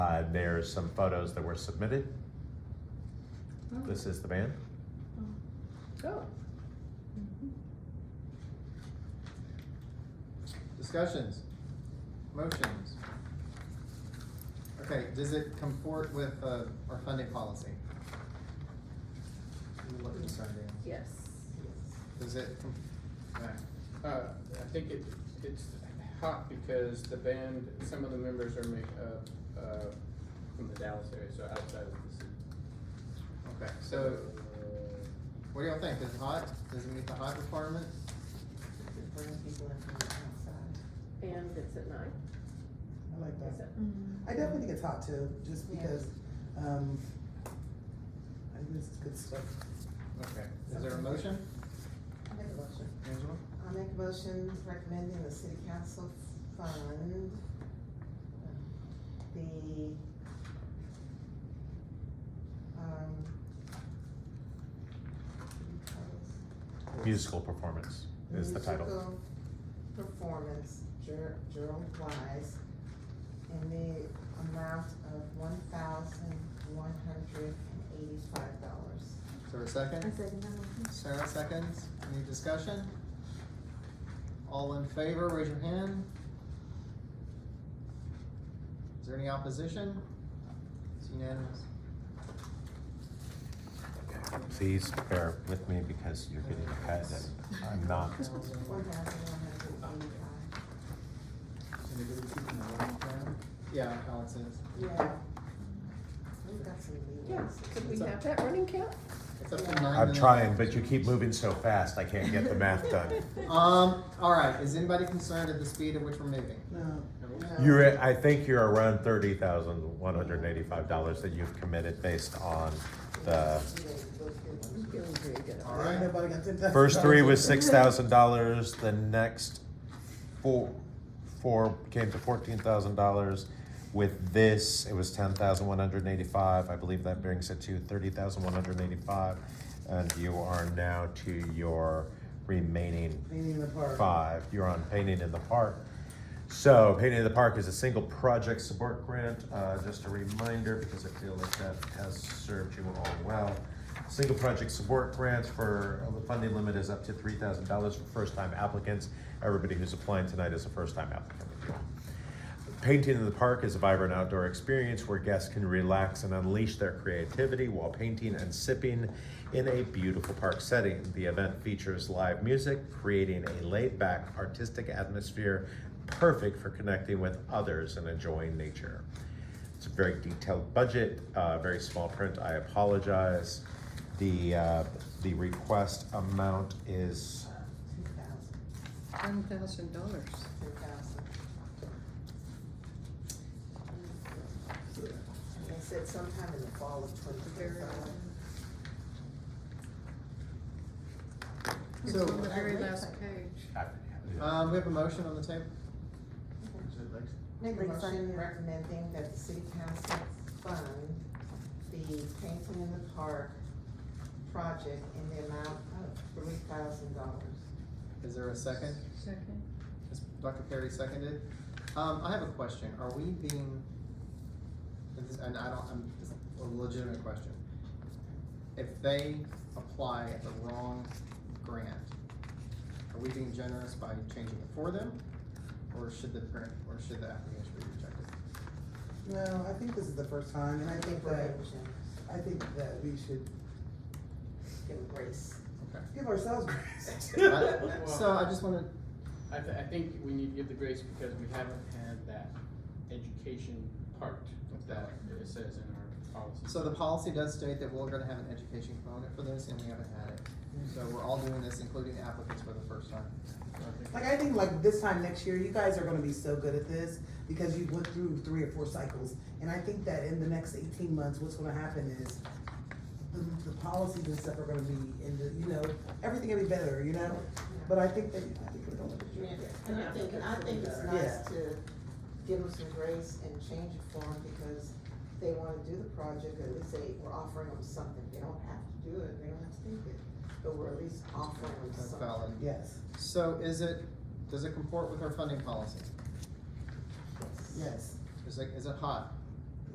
Uh, there's some photos that were submitted. This is the band. Oh. Mm-hmm. Discussions, motions. Okay, does it comport with, uh, our funding policy? You look at Sunday. Yes. Does it, com- alright. Uh, I think it, it's hot because the band, some of the members are ma- uh, uh, from the Dallas area, so outside of the city. okay, So, so what do y'all think? Is it hot? Does it meet the hot requirement? Bring people in from the outside. And it's at nine, I like is it? that. Mm-hmm. I definitely think it's hot too, just Yeah. because, um, I think this is good stuff. Okay, is there a motion, I make a motion. Angela? I make a motion recommending the city council fund the, um, what do you call this? Musical performance is the title. musical Performance, Ger- Gerald Wise, in the amount of one thousand one hundred and eighty-five dollars. Is there a second? Sarah seconds. Any discussion? All in favor, raise your hand. Is there any opposition? It's unanimous. Please bear with me because you're getting cut and I'm not. One thousand one hundred and eighty-five, Yeah, Alex is. yeah. We've got some new Yeah, ones. could we have that running count? It's up to nine I'm minutes. trying, but you keep moving so fast, I can't get the math done. Um, all right, is anybody concerned at the speed at which we're moving? No. no. You're, at- I think you're around thirty thousand, one hundred and eighty-five dollars that you've committed based on the, Yeah, those good ones. I'm feeling very good All about right. Ain't nobody got ten thousand first three dollars. was six thousand dollars, the next four, four came to fourteen thousand dollars. With this, it was ten thousand one hundred and eighty-five, I believe that brings it to thirty thousand one hundred and eighty-five. And you are now to your remaining Meaning the park. five, you're on painting in the park. So painting in the park is a single project support grant, uh, just a reminder, because I feel like that has served you all well. Single project support grants for, uh, the funding limit is up to three thousand dollars for first-time applicants. Everybody who's applying tonight is a first-time applicant. if you will. Painting in the park is a vibrant outdoor experience where guests can relax and unleash their creativity while painting and sipping in a beautiful park setting. The event features live music, creating a laid back artistic atmosphere perfect for connecting with others and enjoying nature. It's a very detailed budget, uh, very small print. I apologize. The, uh, the request amount is Two thousand, One thousand dollars. two thousand. And they said sometime in the fall of twenty thirty. It's So- on the very last page. Um, we have a motion on the table? Make a Make a motion motion. recommending that the city council fund the painting in the park project in the amount of three thousand dollars. Is there a second? Second. Is Dr. Perry seconded? Um, I have a question. Are we being, this is, and I don't, I'm, this is a legitimate question. If they apply the wrong grant, are we being generous by changing it for them? Or should the grant, or should the application be rejected? No, I think this is the first time, and I think we're that, able to I think that we should give a grace. Okay. give ourselves grace. I- So I just wanna, I, th- I think we need to give the grace because we haven't had that education part that it says in our policy. so the policy does state that we're gonna have an education component for this and we haven't had it. So we're all doing this, including the applicants for the first time. Like, I think like this time next year, you guys are gonna be so good at this, because you went through three or four cycles. And I think that in the next eighteen months, what's gonna happen is the, the policies and stuff are gonna be in the, you know, everything will be better, you know? But I think that, I think we're gonna. And I think, I think it's nice to give them some grace and change it for them because they wanna do the project, at least they, we're offering them something, they don't have to do it, they don't have to think it, but we're at least offering them That's something. valid. Yes, So is it, does it comport with our funding policy? Yes. yes. Is it, is it hot?